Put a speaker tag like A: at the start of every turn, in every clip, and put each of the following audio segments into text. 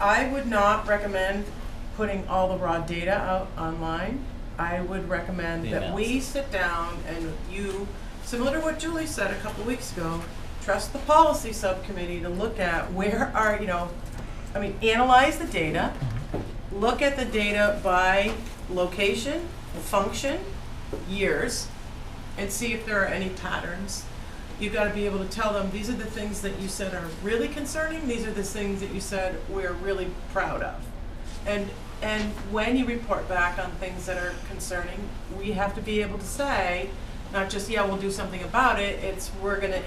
A: I would not recommend putting all the raw data out online. I would recommend
B: The
A: that we
B: analysis.
A: sit down and you, similar to what Julie said a couple weeks ago, trust the policy subcommittee to look at where are, you know, I mean, analyze the data, look at the data by location, function, years, and see if there are any patterns. You've got to be able to tell them, these are the things that you said are really concerning, these are the things that you said we're really proud of. And, and when you report back on things that are concerning, we have to be able to say, not just, yeah, we'll do something about it, it's, we're gonna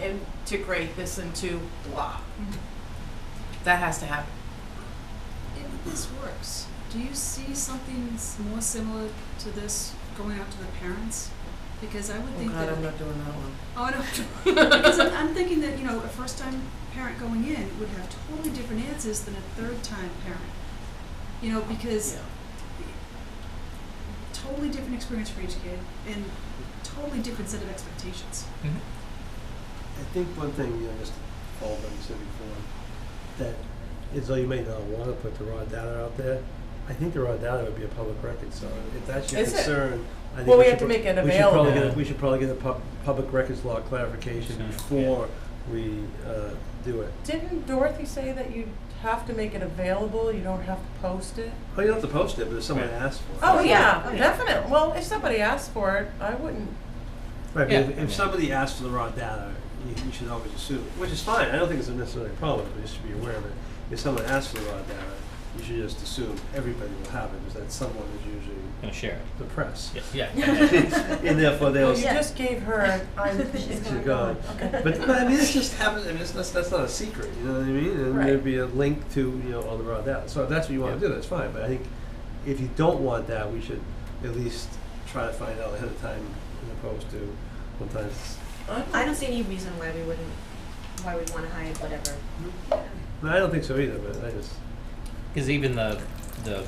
A: integrate this into blah. That has to happen.
C: If this works, do you see something s- more similar to this going out to the parents? Because I would
A: Oh
C: think
A: God,
C: that.
A: I'm not doing that one.
C: Oh, no. because I'm, I'm thinking that, you know, a first time parent going in would have totally different answers than a third time parent. You know, because totally different experience for each kid and totally different set of expectations.
D: I think one thing, you know, Mr. Baldwin said before, that is though you may not want to put the raw data out there, I think the raw data would be a public record, so if that's your
A: Is it?
D: concern, I think
A: Well, we
D: should
A: have to
D: pro-
A: make it
D: we should probably
B: available.
D: get a- We should probably get a pub- public records law clarification
B: Sure.
D: before we, uh, do it.
A: Didn't Dorothy say that you have to make it available, you don't have to post it?
D: Oh, you don't have to post it, but if someone asks for it.
A: Oh, yeah,
C: Oh, yeah.
A: definitely. Well, if somebody asked for it, I wouldn't.
D: Right, but
B: Yeah.
D: if, if somebody asks for the raw data, you, you should always assume, which is fine, I don't think it's necessarily a problem, but you should be aware of it. If someone asks for the raw data, you should just assume everybody will have it, because that someone is usually
B: Gonna share it.
D: the press.
B: Yeah.
D: And therefore they'll,
A: You
D: she's
A: just gave her, an I'm, she's gone.
D: gone.
A: Okay.
D: But, but I mean, this just happens, I mean, it's- that's, that's not a secret, you know what I mean? And
A: Right.
D: there'd be a link to, you know, all the raw data, so if that's what you wanna do, that's fine, but I think if you don't want that, we should at least try to find out ahead of time, as opposed to sometimes
E: I don't see any reason why we wouldn't, why we'd wanna hide whatever.
D: No, I don't think so either, but I just,
B: Because even the the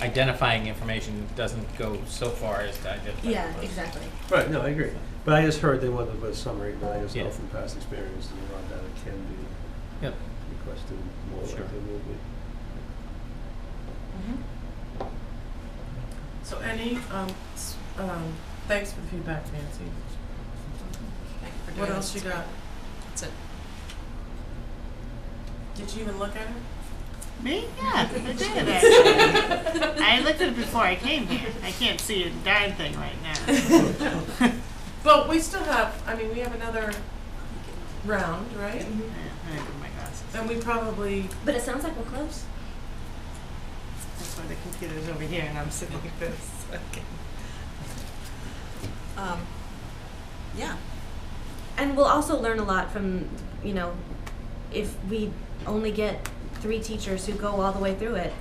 B: identifying information doesn't go so far as to identify. the
E: Yeah,
B: person.
E: exactly.
D: right, no, I agree. But I just heard they wanted to put a summary, but I just know
B: Yeah.
D: from past experience that a lot of data can be
B: Yep.
D: requested more
B: Sure.
D: than will be.
A: Mhm. So any, um, s- um, thanks for the feedback, Nancy. What else you got?
C: That's it.
A: Did you even look at it?
F: Me? Yeah, I did actually. I looked at it before I came here. I can't see a darn thing right now.
A: But we still have, I mean, we have another round, right?
F: Yeah, I didn't put my glasses.
A: And we probably,
E: But it sounds like we're close.
F: That's why the computer's over here and I'm sitting like this. Okay.
C: Um, yeah.
E: And we'll also learn a lot from, you know, if we only get three teachers who go all the way through it.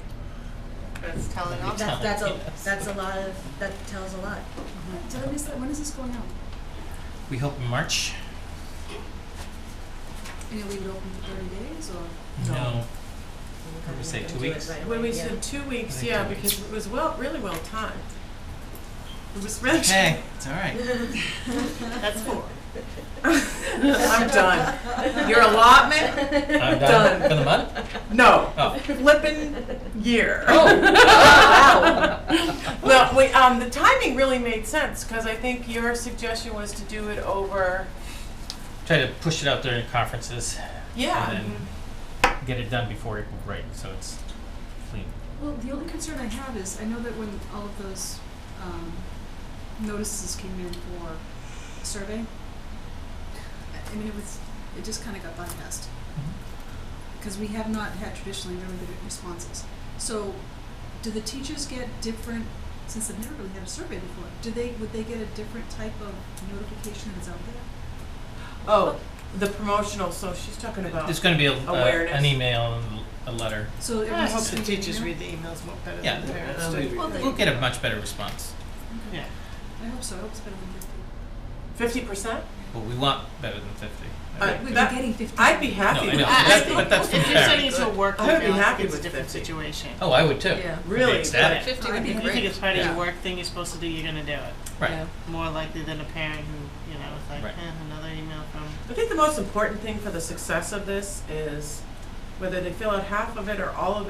F: That's telling all.
E: That's, that's a,
B: Yes.
E: that's a lot of, that tells a lot.
A: Mm-hmm.
C: Did I miss that? When is this going out?
B: We hope in March.
C: And you leave it open for 30 days or?
A: No.
B: What we say, two weeks?
A: when we said two weeks, yeah,
B: Like two
A: because it was well, really well timed. It was really.
B: Hey, it's all right.
F: That's four.
A: I'm done. Your allotment? Done.
B: I'm done for the month.
A: No.
B: Oh.
A: Flippin' year.
B: wow.
A: Well, we, um, the timing really made sense, because I think your suggestion was to do it over,
B: Try to push it out during conferences
A: yeah.
B: and then get it done before April break, so it's clean.
C: Well, the only concern I have is, I know that when all of those um, notices came in for survey, I I mean, it was, it just kind of got bypassed.
F: Mm-hmm.
C: Because we have not had traditionally very good responses. So, do the teachers get different, since they've never really had a survey before, do they, would they get a different type of notification that's out there?
A: Oh, the promotional, so she's talking about,
B: There's going to be a, a,
A: Awareness.
B: an email and a letter.
C: So it
F: I
C: was
F: hope
C: just
F: the
C: gonna be
F: teachers
C: email?
F: read the emails more better
B: Yeah.
F: than the parents
D: I don't
F: do.
D: think we-
C: Well, they-
B: We'll get a much better response.
F: Yeah.
C: I hope so, I hope it's better than fifty.
A: fifty percent?
B: But we want better than 50.
A: Uh,
B: think.
C: We've
A: That-
C: been getting fifty.
A: I'd be happy
B: No, I
A: with
B: know,
A: that.
B: but that's- but that's from
F: If you're
B: parents.
F: sending to a work
A: I would be
F: email, I
A: happy
F: think it's a
A: with
F: different
A: 50.
F: situation.
B: Oh, I would too.
A: Really,
B: ecstatic.
A: but-
C: Fifty would be
F: If you think it's part of
A: Yeah.
F: your work thing you're supposed to do, you're gonna do it.
B: Right.
F: More likely than a parent who, you know, is like,
B: Right.
F: eh, another email from.
A: I think the most important thing for the success of this is whether they fill out half of it or all of it.